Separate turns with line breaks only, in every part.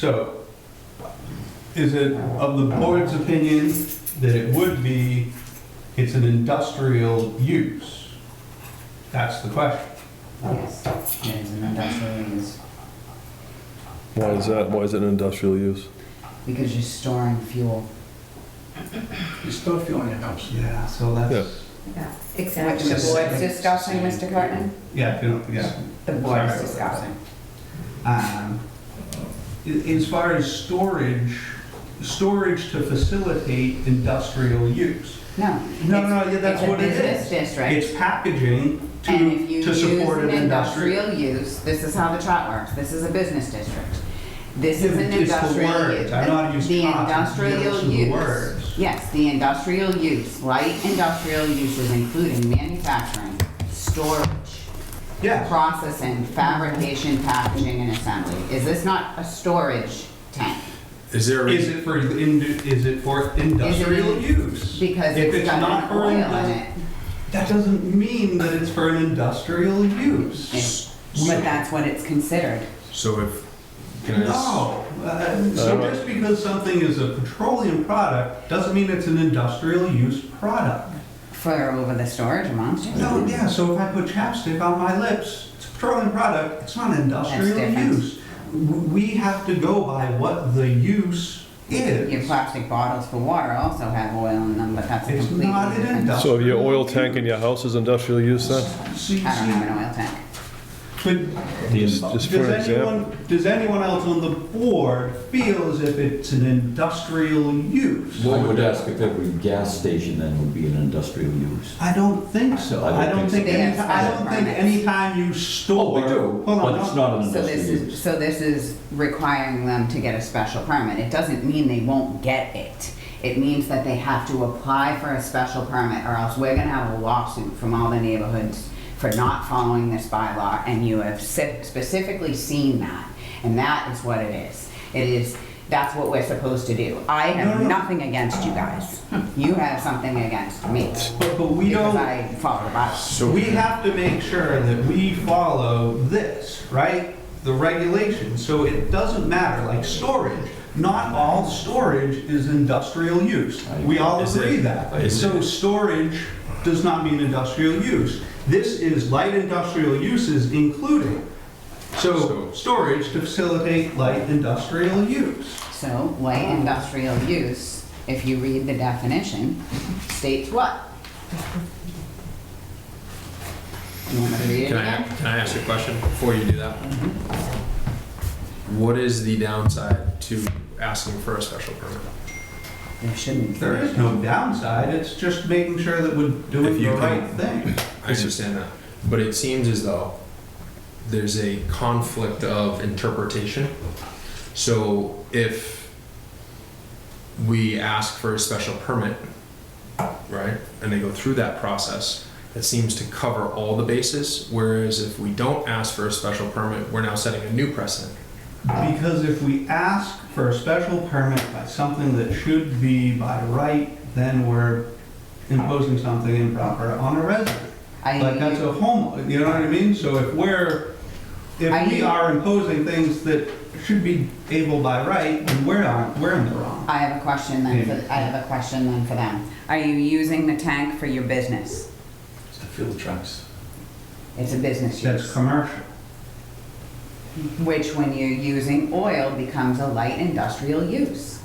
So, is it of the board's opinion that it would be, it's an industrial use? That's the question.
Yes, it is an industrial use,
Why is that, why is it an industrial use?
because you're storing fuel.
You store fuel in your house.
Yeah, so that's,
Yeah, Exactly.
Which
The
is-
board's discussing, Mr. Carton?
yeah, if you don't, yeah.
The board is discussing.
Um, i- As far as storage, storage to facilitate industrial use.
No.
No,
it's-
no, yeah, that's
it's a
what it
business
is.
district,
It's packaging
and if you
to, to
use
support
an
an industrial.
industrial use, this is how the chart works, this is a business district. This is an
It's the
industrial
words.
use.
I'm not used
The
to concepts, I'm used
industrial
to the
use,
words.
yes, the industrial use, light industrial uses including manufacturing, storage,
Yeah,
processing, fabrication, packaging, and assembly. Is this not a storage tank?
Is there,
is
a-
it for, indu- is it for industrial use?
Because
If
it's
not
got an
for
oil in
indus-
it.
That doesn't mean that it's for an industrial use.
But that's what it's considered.
so if, can I ask?
No, Uh, so
Uh,
just because something is a petroleum product doesn't mean it's an industrial use product.
For over the storage amount, yes.
No, yeah, so if I put chapstick on my lips, it's a petroleum product, it's not industrial
different.
use. W- We have to go by what the use
Your
is.
plastic bottles for water also have oil in them, but that's a
It's
completely
not an
different.
industrial.
So your oil tank in your house is industrial use then?
See,
I don't have
see,
an oil tank.
but
Just just for an
Does
example.
anyone, does anyone else on the board feel as if it's an industrial use?
Well, I would ask if every gas station then would be an industrial use.
I don't think so. I don't think,
so.
any- I don't think
They have
anytime you store.
Well, Oh, we do,
Hold on,
but
no.
it's not an
So this
industrial
is,
use.
so this is requiring them to get a special permit. It doesn't mean they won't get it. It means that they have to apply for a special permit or else we're gonna have a lawsuit from all the neighborhoods for not following this bylaw and you have se- specifically seen that. And that is what it is. It is, that's what we're supposed to do. I have
No, no.
nothing against you guys. You have something against me
But, but we
because
don't,
I follow the bylaw.
So
we have to make sure that we follow this, right? The regulations, so it doesn't matter, like storage, not all storage is industrial use. We all
Is it-
agree that.
is
So
it-
storage does not mean industrial use. This is light industrial uses including. So
So-
storage to facilitate light industrial use.
So, light industrial use, if you read the definition, states what? You want me to read it
Can I,
again?
can I ask a question before you do that?
Mm-hmm.
What is the downside to asking for a special permit?
There shouldn't
There
be.
is no downside, it's just making sure that we're
If
doing
you
the
can-
right thing.
I understand that, but it seems as though there's a conflict of interpretation. So if we ask for a special permit, right, and they go through that process, it seems to cover all the bases, whereas if we don't ask for a special permit, we're now setting a new precedent.
Because if we ask for a special permit by something that should be by right, then we're imposing something improper on a resident. Like that's
I,
a home, you know what I mean? So if we're,
I-
if we are imposing things that should be able by right, then we're on, we're in the wrong.
I have a question then, for- I have a question then for them. Are you using the tank for your business?
It's the fuel trucks.
It's a business
That's
use,
commercial.
which when you're using oil becomes a light industrial use.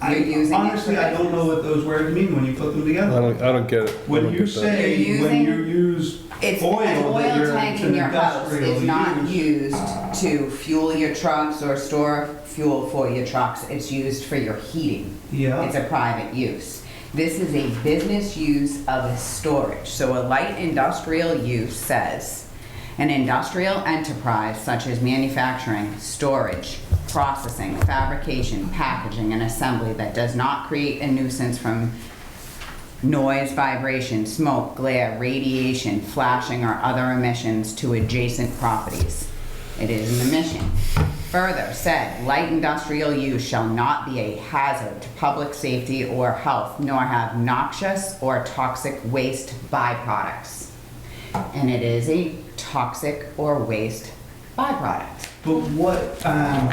I-
You're using it for
Honestly, I don't know what those words mean when you put them
I
together.
don't, I don't get it. I
When
don't
you
get that.
say,
You're
when you
using-
use
It's,
Oil
an oil
that you're-
tank
it's
in
an
your house is
industrial
not used to fuel your trucks or store fuel for your trucks. It's used for your heating.
Yeah.
It's a private use. This is a business use of a storage. So a light industrial use says, an industrial enterprise such as manufacturing, storage, processing, fabrication, packaging, and assembly that does not create a nuisance from noise, vibration, smoke, glare, radiation, flashing, or other emissions to adjacent properties. It is an emission. Further said, light industrial use shall not be a hazard to public safety or health, nor have noxious or toxic waste byproducts. And it is a toxic or waste byproduct.
but what, um,